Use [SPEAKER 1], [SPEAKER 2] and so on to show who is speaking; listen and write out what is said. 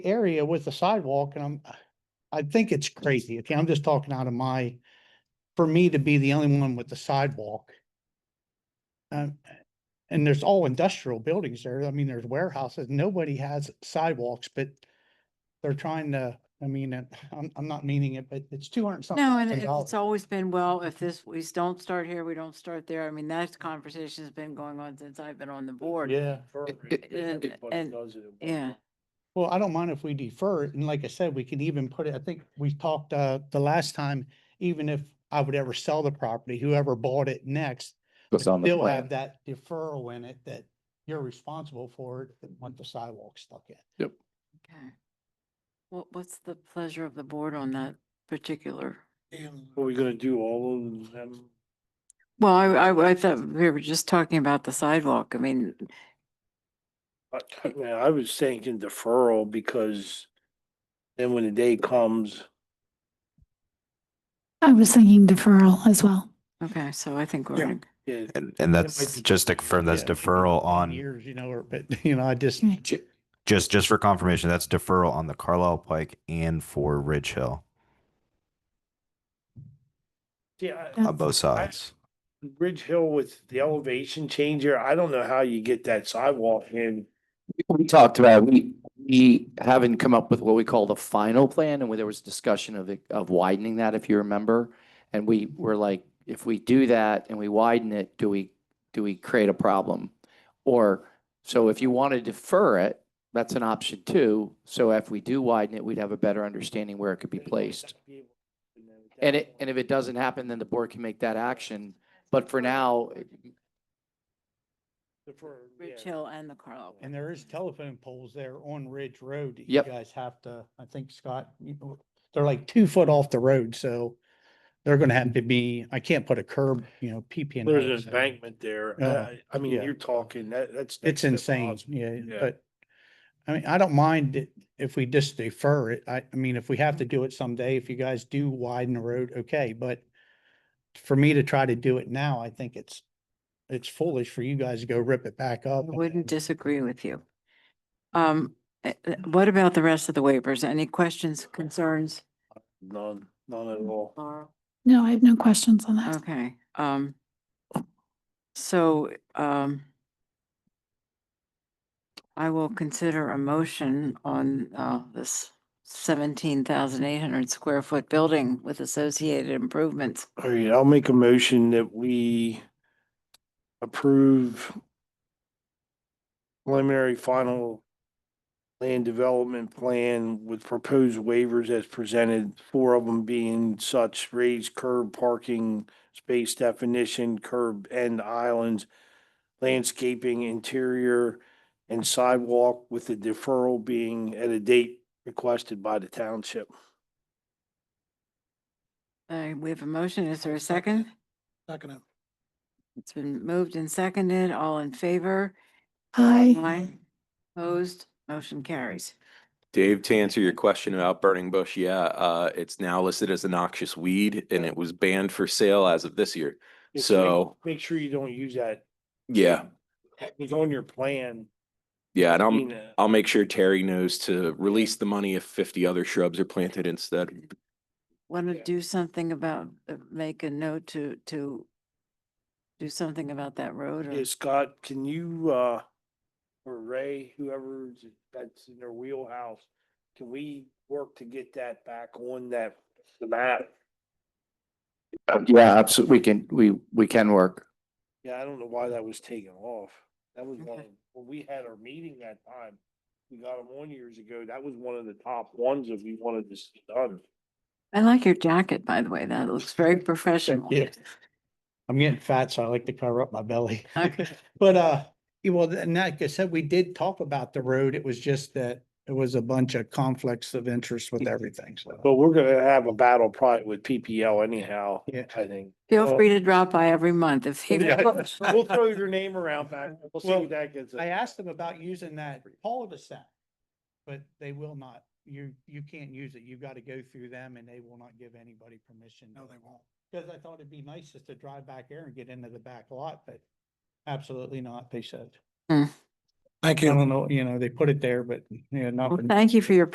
[SPEAKER 1] area with the sidewalk and I'm, I think it's crazy. Okay, I'm just talking out of my, for me to be the only one with the sidewalk. Um, and there's all industrial buildings there. I mean, there's warehouses. Nobody has sidewalks, but they're trying to, I mean, uh, I'm, I'm not meaning it, but it's two hundred something.
[SPEAKER 2] No, and
[SPEAKER 1] thousand
[SPEAKER 2] it- it's
[SPEAKER 1] dollars.
[SPEAKER 2] always been, well, if this, we s- don't start here, we don't start there. I mean, that conversation's been going on since I've been on the board.
[SPEAKER 1] Yeah.
[SPEAKER 2] and- and- Yeah,
[SPEAKER 1] Well, I don't mind if we defer it, and like I said, we can even put it, I think we talked, uh, the last time, even if I would ever sell the property, whoever bought it next.
[SPEAKER 3] It's on the
[SPEAKER 1] They'll have
[SPEAKER 3] plan.
[SPEAKER 1] that deferral in it that you're responsible for it, and want the sidewalk stuck in.
[SPEAKER 2] okay. What, what's the pleasure of the board on that particular?
[SPEAKER 4] Are we gonna do all of them?
[SPEAKER 2] Well, I, I, I thought we were just talking about the sidewalk. I mean,
[SPEAKER 4] I, I mean, I was thinking deferral because then when the day comes,
[SPEAKER 5] I was thinking deferral as well.
[SPEAKER 2] okay, so I think we're, in-
[SPEAKER 4] yeah,
[SPEAKER 6] And, and that's just to confirm that's
[SPEAKER 1] Yeah, it could be
[SPEAKER 6] deferral
[SPEAKER 1] 10
[SPEAKER 6] on,
[SPEAKER 1] Years, you know, or, but, you know, I just,
[SPEAKER 3] Mm,
[SPEAKER 5] Okay.
[SPEAKER 6] just, just for confirmation, that's deferral on the Carlisle Pike and for Ridge Hill
[SPEAKER 4] yeah. I-
[SPEAKER 6] on both sides.
[SPEAKER 4] Ridge Hill with the elevation change here, I don't know how you get that sidewalk in.
[SPEAKER 3] We talked about, we, we haven't come up with what we call the final plan and where there was discussion of, it- of widening that, if you remember. And we were like, if we do that and we widen it, do we, do we create a problem? Or, so if you want to defer it, that's an option too. So if we do widen it, we'd have a better understanding where it could be placed. And it, and if it doesn't happen, then the board can make that action. But for now,
[SPEAKER 4] Defer, yeah.
[SPEAKER 2] Ridge Hill and the Carlisle.
[SPEAKER 1] and there is telephone poles there on Ridge Road. that
[SPEAKER 3] Yep.
[SPEAKER 1] You guys have to, I think Scott, you know, they're like two foot off the road, so they're gonna have to be, I can't put a curb, you know, PP in. there,
[SPEAKER 4] There's an
[SPEAKER 1] so.
[SPEAKER 4] embankment there.
[SPEAKER 1] Yeah.
[SPEAKER 4] I, I mean,
[SPEAKER 1] Yeah.
[SPEAKER 4] you're talking, that, that's.
[SPEAKER 1] It's
[SPEAKER 4] next to
[SPEAKER 1] insane,
[SPEAKER 4] impossible.
[SPEAKER 1] yeah,
[SPEAKER 4] Yeah.
[SPEAKER 1] but, I mean, I don't mind it if we just defer it, I, I mean, if we have to do it someday, if you guys do widen the road, okay, but for me to try to do it now, I think it's, it's foolish for you guys to go rip it back
[SPEAKER 2] I
[SPEAKER 1] up. and
[SPEAKER 2] wouldn't
[SPEAKER 1] then-
[SPEAKER 2] disagree with you. Um, eh, eh, what about the rest of the waivers? Any questions, concerns?
[SPEAKER 4] None, none at all.
[SPEAKER 2] Laura?
[SPEAKER 5] No, I have no questions on that.
[SPEAKER 2] Okay, um, so, um, I will consider a motion on, uh, this seventeen thousand eight hundred square foot building with associated improvements.
[SPEAKER 4] All right, I'll make a motion that we approve preliminary final land development plan with proposed waivers as presented, four of them being such raised curb parking, space definition, curb end islands, landscaping, interior, and sidewalk with the deferral being at a date requested by the township.
[SPEAKER 2] Uh, we have a motion. Is there a second?
[SPEAKER 4] Second.
[SPEAKER 2] It's been moved and seconded. All in favor?
[SPEAKER 5] Hi,
[SPEAKER 2] Aye. Opposed? Motion carries.
[SPEAKER 7] Dave, to answer your question about burning bush, yeah, uh, it's now listed as a noxious weed and it was banned for sale as of this year. So,
[SPEAKER 4] Make sure you don't use that
[SPEAKER 7] yeah,
[SPEAKER 4] It's on your plan.
[SPEAKER 7] yeah, and
[SPEAKER 4] being
[SPEAKER 7] I'm,
[SPEAKER 4] a-
[SPEAKER 7] I'll make sure Terry knows to release the money if fifty other shrubs are planted instead.
[SPEAKER 2] Want to
[SPEAKER 4] Yeah.
[SPEAKER 2] do something about, uh, make a note to, to do something about that road or?
[SPEAKER 4] Yeah, Scott, can you, uh, or Ray, whoever's, that's in their wheelhouse, can we work to get that back on that, the map?
[SPEAKER 3] yeah, absolutely, we can, we, we can work.
[SPEAKER 4] Yeah, I don't know why that was taken off. That was one,
[SPEAKER 2] Okay.
[SPEAKER 4] of- when we had our meeting that time, we got them on years ago, that was one of the top ones if we wanted this done.
[SPEAKER 2] I like your jacket, by the way. That looks very professional.
[SPEAKER 1] you. I'm getting fat, so I like to cover up my belly.
[SPEAKER 2] Okay.
[SPEAKER 1] But, uh, yeah, well, and like I said, we did talk about the road. It was just that it was a bunch of conflicts of interest with everything, so.
[SPEAKER 4] But we're gonna have a battle probably with PPL anyhow,
[SPEAKER 1] Yeah.
[SPEAKER 4] I think.
[SPEAKER 2] Feel
[SPEAKER 4] Well-
[SPEAKER 2] free to drop by every month if you.
[SPEAKER 4] Yeah.
[SPEAKER 2] want.
[SPEAKER 4] We'll throw your name around back, we'll see
[SPEAKER 1] Well,
[SPEAKER 4] what that gets. us.
[SPEAKER 1] I asked them about using that cul-de-sac, but they will not. You, you can't use it. You've got to go through them and they will not give anybody permission. No, they won't. Because I thought it'd be nice just to drive back there and get into the back lot, but absolutely not, they said.
[SPEAKER 2] Hmm.
[SPEAKER 1] Thank you. I don't know, you know, they put it there, but, you know, not.
[SPEAKER 2] Well,
[SPEAKER 1] for-
[SPEAKER 2] Thank you for your